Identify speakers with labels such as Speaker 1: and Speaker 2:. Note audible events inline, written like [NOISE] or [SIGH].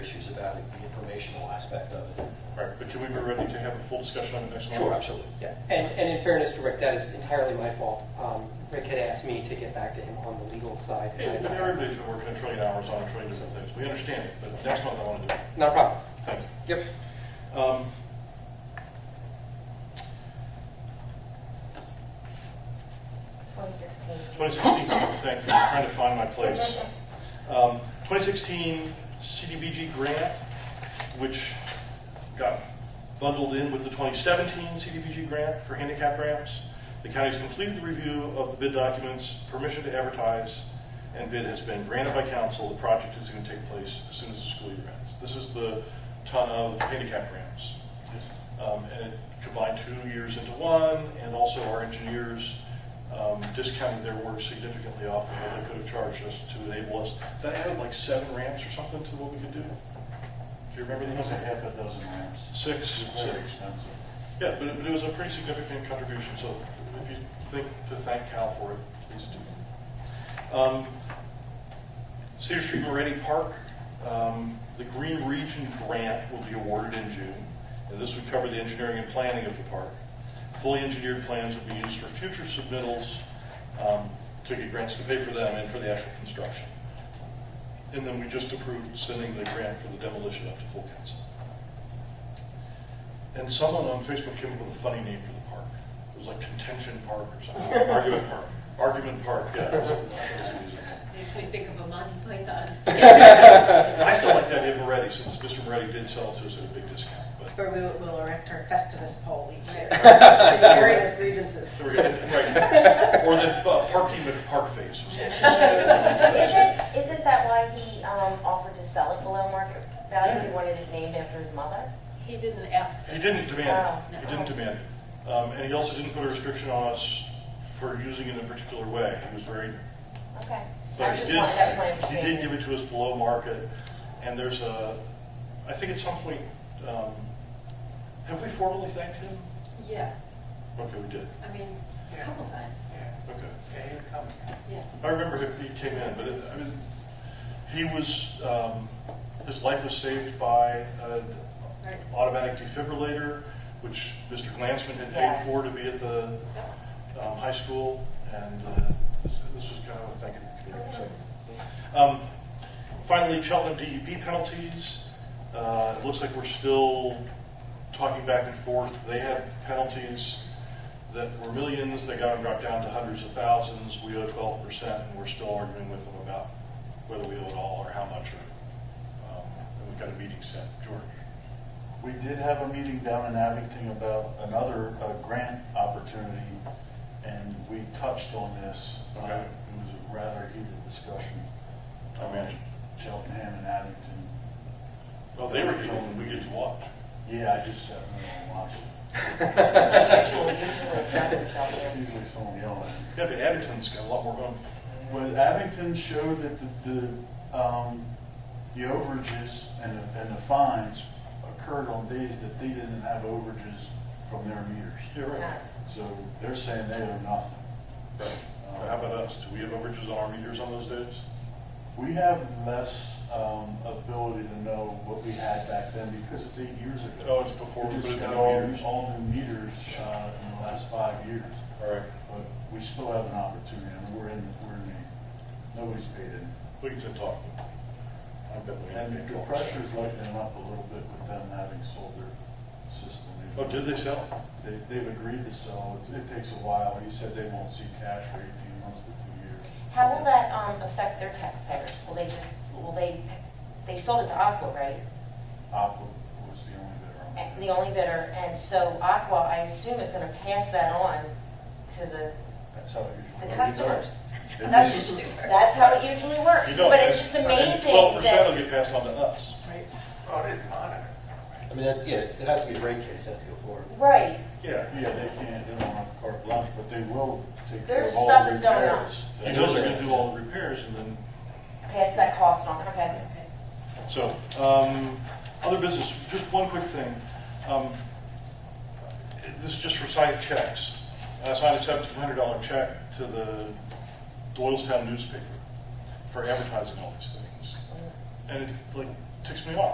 Speaker 1: about it, the informational aspect of it.
Speaker 2: All right, but can we be ready to have a full discussion on it next month?
Speaker 1: Sure, absolutely.
Speaker 3: Yeah, and, and in fairness to Rick, that is entirely my fault. Um, Rick had asked me to get back to him on the legal side.
Speaker 2: Hey, but everybody's been working a trillion hours on a trillion different things. We understand it, but next month I want to do it.
Speaker 3: Not a problem.
Speaker 2: Thank
Speaker 3: Yep.
Speaker 2: you. Um,
Speaker 4: Twenty sixteen.
Speaker 2: 2016, thank you, I'm trying to find my place. Um, 2016 CDBG grant, which got bundled in with the 2017 CDBG grant for handicap ramps. The county's completed the review of the bid documents, permission to advertise, and bid has been granted by council. The project is going to take place as soon as the school year ends. This is the ton of handicap ramps. Um, And it combined two years into one, and also our engineers um, discounted their work significantly off of what they could have charged us to enable us. That added like seven ramps or something to what we could do. Do you remember the
Speaker 5: It was a
Speaker 2: number?
Speaker 5: half a dozen ramps.
Speaker 2: Six.
Speaker 5: It's very expensive.
Speaker 2: Yeah, but it, but it was a pretty significant contribution, so if you think to thank Cal for it, please do. Um, Cedar Street Moretti Park, um, the Green Region Grant will be awarded in June, and this would cover the engineering and planning of the park. Fully engineered plans will be used for future submittals um, to get grants to pay for them and for the actual construction. And then we just approved sending the grant for the demolition up to full council. And someone on Facebook came up with a funny name for the park. It was like Contention Park or something. Argument Park. Argument Park, yeah. It was- it was amusing.
Speaker 6: Makes me think of a Monty Python.
Speaker 2: And I still like the idea of Moretti, since Mr. Moretti did sell it to us at a big discount, but.
Speaker 7: Where we will- will erect our Festivus pole each
Speaker 2: [LAUGHS]
Speaker 7: year. The area of grievances.
Speaker 2: There we go. Right. Or the uh, parking with the park face. was also-
Speaker 4: Isn't, isn't that why he um, offered to sell it below market value? He wanted it named after his mother?
Speaker 6: He didn't ask.
Speaker 2: He didn't demand, it. he didn't demand. it. Um, And he also didn't put a restriction on us for using it in a particular way. He was very
Speaker 4: Okay. I
Speaker 2: But he
Speaker 4: just
Speaker 2: did,
Speaker 4: wanted, that was my
Speaker 2: he
Speaker 4: understanding.
Speaker 2: did give it to us below market, and there's a, I think at some point, um, have we formally thanked him?
Speaker 6: Yeah,
Speaker 2: Okay, we did.
Speaker 6: I mean, a couple times,
Speaker 2: Okay.
Speaker 5: Yeah, he's coming.
Speaker 6: yeah.
Speaker 2: I remember he, he came in, but it, I mean, he was, um, his life was saved by an
Speaker 6: Right.
Speaker 2: automatic defibrillator, which Mr. Glansman had paid
Speaker 4: Yes.
Speaker 2: for to be at the,
Speaker 6: [LAUGHS]
Speaker 2: um, high school, and, uh, this this was kind of a thank you. so. Um, Finally, Cheltenham DEP E penalties. Uh, It looks like we're still talking back and forth. They had penalties that were millions, they got them dropped down to hundreds of thousands. We owe twelve percent, and we're still arguing with them about whether we owe it all or how much. or, um, And we've got a meeting set, George.
Speaker 5: We did have a meeting down in Abington about another uh, grant opportunity, and we touched on this. Uh,
Speaker 2: Okay.
Speaker 5: It was a rather heated discussion.
Speaker 2: I imagine.
Speaker 5: Uh, Cheltenham and Abington.
Speaker 2: Well, they were getting, we get to watch.
Speaker 5: Yeah, I just sat there and watched it.
Speaker 4: Just unusual, [LAUGHS] usually it doesn't show
Speaker 5: It's
Speaker 4: you.
Speaker 5: usually someone yelling.
Speaker 2: Yeah, but Abington's got a lot more going.
Speaker 5: But Abington showed that the, the, um, the overages and, the- and the fines occurred on days that they didn't have overages from their meters.
Speaker 2: You're right.
Speaker 5: So they're saying they owe nothing.
Speaker 2: But Uh, How about us? Do we have overages on our meters on those days?
Speaker 5: We have less um, ability to know what we had back then because it's eight years
Speaker 2: Oh,
Speaker 5: ago.
Speaker 2: it's before we
Speaker 5: We
Speaker 2: put
Speaker 5: just
Speaker 2: it in
Speaker 5: got
Speaker 2: the
Speaker 5: all,
Speaker 2: meters.
Speaker 5: all new meters uh, in the last five years.
Speaker 2: All right.
Speaker 5: But we still have an opportunity and we're in, we're in, the- nobody's paid in.
Speaker 2: We can sit talking. I bet we
Speaker 5: And
Speaker 2: can
Speaker 5: the
Speaker 2: talk.
Speaker 5: pressure's lightening up a little bit with them having sold their system.
Speaker 2: Oh, did they sell?
Speaker 5: They, they've agreed to sell. It It takes a while. He said they won't see cash for 18 months to two years.
Speaker 4: How will that um, affect their taxpayers? Will they just, will they, they sold it to Aqua, right?
Speaker 5: Aqua was the only bidder on that.
Speaker 4: The only bidder, and so Aqua, I assume, is going to pass that on to the
Speaker 5: That's how it usually.
Speaker 4: the
Speaker 5: works.
Speaker 4: customers.
Speaker 5: They
Speaker 4: That-
Speaker 5: do.
Speaker 4: That's how it usually works.
Speaker 2: You don't,
Speaker 4: But it's
Speaker 2: and-
Speaker 4: just amazing
Speaker 2: Twelve percent will
Speaker 4: that,
Speaker 2: get passed on to us.
Speaker 1: I mean, that- yeah, it has to be a rate case, it has to go forward.
Speaker 4: right,
Speaker 2: Yeah.
Speaker 5: Yeah, they can't, they don't want carte blanche, but they will take care
Speaker 4: Their
Speaker 5: of all the
Speaker 4: stuff
Speaker 5: repairs.
Speaker 4: is going on.
Speaker 2: And those are gonna do all the repairs and then,
Speaker 4: pass that cost on, okay?
Speaker 2: so, um, other business, just one quick thing. Um, This is just for signed checks. I signed a seventeen hundred dollar check to the Doylestown newspaper for advertising all these things. And it like ticks me off.